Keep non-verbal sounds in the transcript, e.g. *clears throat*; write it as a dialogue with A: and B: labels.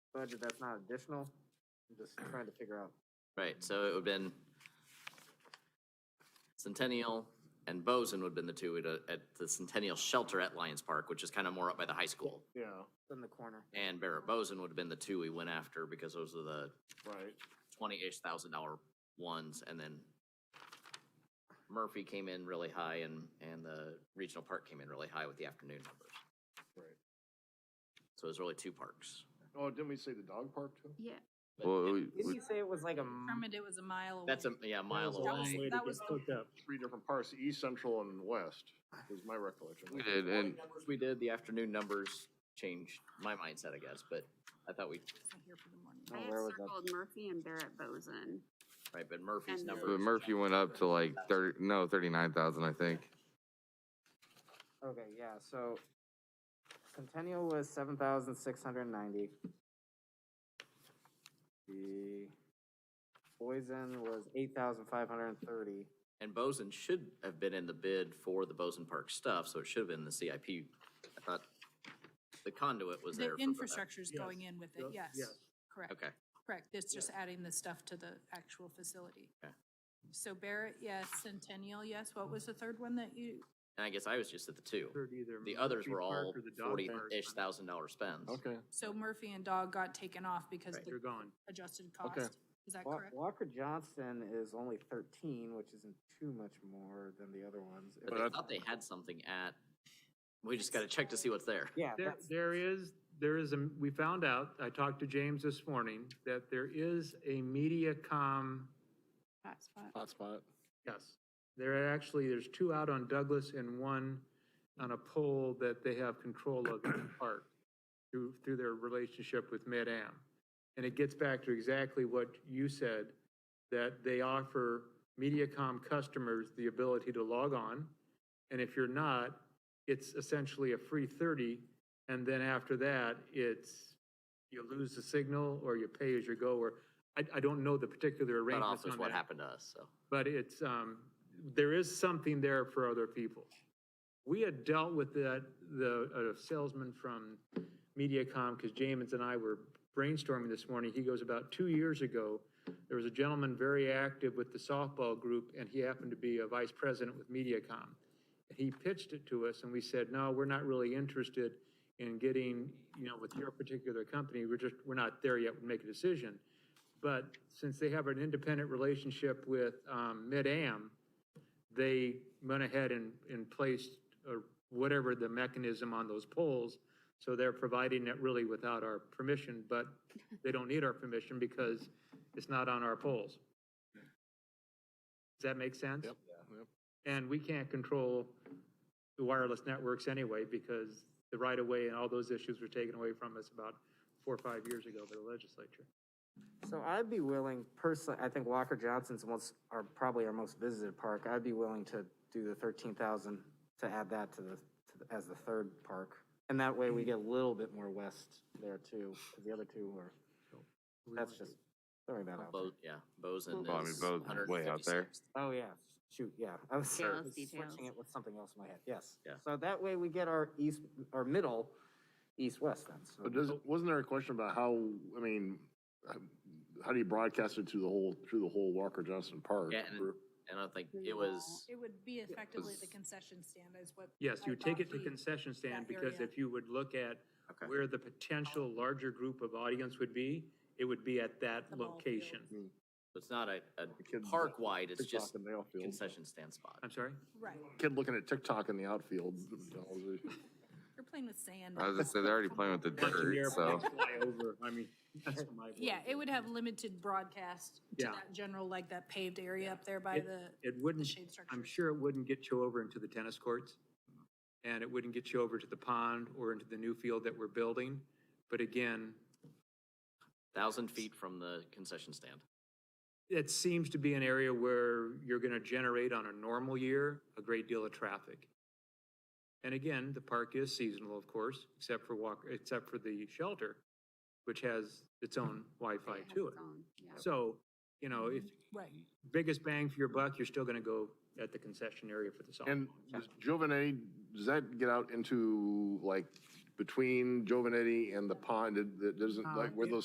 A: budget that's not additional? I'm just trying to figure out.
B: Right, so it would have been Centennial and Bozen would have been the two at, a- at the Centennial Shelter at Lions Park, which is kind of more up by the high school.
C: Yeah,
A: It's in the corner.
B: And Barrett Bozen would have been the two we went after because those are the
C: right.
B: twenty-ish thousand dollar ones and then Murphy came in really high and, and the regional park came in really high with the afternoon numbers.
C: Right.
B: So it was really two parks.
C: Oh, didn't we say the dog park too?
D: Yeah,
B: But
E: Well,
B: it-
E: we,
A: Didn't
E: we-
A: you say it was like a, m-
D: determined it was a mile away.
B: That's a, yeah, mile away.
D: That was
C: Three different parts, east, central, and west, was my recollection.
E: we did, and
B: Numbers We did, the afternoon numbers changed my mindset, I guess, but I thought we,
D: here for the morning.
A: Oh,
F: I had
A: where was that?
F: circled Murphy and Barrett Bozen.
B: right, but Murphy's
F: And
B: numbers.
F: the-
E: but Murphy went up to like thirty, no, thirty-nine thousand, I think.
A: okay, yeah, so Centennial was seven thousand six hundred and ninety. The Poison was eight thousand five hundred and thirty.
B: And Bozen should have been in the bid for the Bozen Park stuff, so it should have been the CIP. I thought the conduit was there.
D: The
B: for that.
D: infrastructure's going in with it, yes.
C: yes.
D: Correct,
B: Okay,
D: correct. It's just adding the stuff to the actual facility.
B: Okay.
D: So Barrett, yes. Centennial, yes. What was the third one that you,
B: and I guess I was just at the two.
G: heard either
B: The
G: Murphy
B: others were
G: Park
B: all
G: or the dog park.
B: forty-ish thousand dollar spends.
C: Okay,
D: so Murphy and Dog got taken off because
B: Right.
D: the
G: They're gone.
D: adjusted
C: Okay.
D: cost? Is that
A: Wa-
D: correct?
A: Walker Johnson is only thirteen, which isn't too much more than the other ones.
B: But
C: But
B: I
C: I-
B: thought they had something at, we just gotta check to see what's there.
A: Yeah,
G: There,
A: that's,
G: there is, there is, a- we found out, I talked to James this morning, that there is a MediaCom,
D: Hotspot.
C: hotspot.
G: yes. There are actually, there's two out on Douglas and one on a pole that they have control of
B: *clears throat*
G: in the park through, through their relationship with Mid-Am. And it gets back to exactly what you said, that they offer MediaCom customers the ability to log on. And if you're not, it's essentially a free 30. And then after that, it's, you lose the signal or you pay as you go, or I, I don't know the particular
B: Cut
G: arrangements
B: off is
G: on
B: what
G: that.
B: happened to us, so.
G: But it's, um, there is something there for other people. We had dealt with that, the, a salesman from MediaCom, because James and I were brainstorming this morning. He goes, about two years ago, there was a gentleman very active with the softball group, and he happened to be a vice president with MediaCom. He pitched it to us, and we said, no, we're not really interested in getting, you know, with your particular company, we're just, we're not there yet, we make a decision. But since they have an independent relationship with um, Mid-Am, they went ahead and, and placed uh, whatever the mechanism on those poles. So they're providing it really without our permission, but they don't need our permission because it's not on our poles. Does that make sense?
C: Yep, yep.
G: And we can't control the wireless networks anyway because the right-of-way and all those issues were taken away from us about four or five years ago by the legislature.
A: so I'd be willing, personally, I think Walker Johnson's most, are probably our most visited park. I'd be willing to do the thirteen thousand to add that to the, to the- as the third park. And that way we get a little bit more west there too, because the other two are, that's just throwing that out. there.
B: Bo, yeah, Bozen
E: Well, I mean,
B: is
E: Bozen's way out there.
B: 156th.
A: Oh, yeah, shoot, yeah. I was
F: Yeah,
A: I was
F: details.
A: *laughs* switching it with something else in my head, yes.
B: Yeah.
A: So that way we get our east, our middle, east-west then. so-
C: But does, wasn't there a question about how, I mean, how- how do you broadcast it to the whole, through the whole Walker Johnson Park?
B: Yeah, and- And I think it was,
D: It would be effectively the
E: was-
D: concession stand is what.
G: Yes,
D: I
G: you take
D: thought
G: it to
D: he-
G: concession stand,
D: that
G: because
D: area.
G: if you would look at
B: Okay.
G: where the potential larger group of audience would be, it would be at that
D: The ball field.
G: location.
B: it's not a, a
C: kids-
B: park-wide, it's
C: TikTok
B: just
C: in the outfield.
B: concession stand spot.
G: I'm sorry?
D: Right,
C: Kid looking at TikTok in the outfield.
D: you're playing with sand.
E: I was gonna say, they're already playing with the
G: Bunch of
E: dirt, so.
G: airplanes fly over. I mean, *laughs* that's my. word.
D: *laughs* Yeah, it would have limited broadcast to
G: Yeah.
D: that general, like that paved area up there by
G: It-
D: the,
G: It wouldn't,
D: shade
G: I'm
D: structures.
G: sure it wouldn't get you over into the tennis courts, and it wouldn't get you over to the pond or into the new field that we're building. But again,
B: Thousand feet from the concession stand.
G: it seems to be an area where you're going to generate on a normal year a great deal of traffic. And again, the park is seasonal, of course, except for walk, except for the shelter, which has its own Wi-Fi
F: It has
G: to it.
F: its own, yeah. Mm-hmm.
G: So, you know, if
D: right.
G: biggest bang for your buck, you're still going to go at the concession area for the softball.
C: And does Giovanetti, does that get out into like between Giovanetti and the pond? It- It doesn't, like where those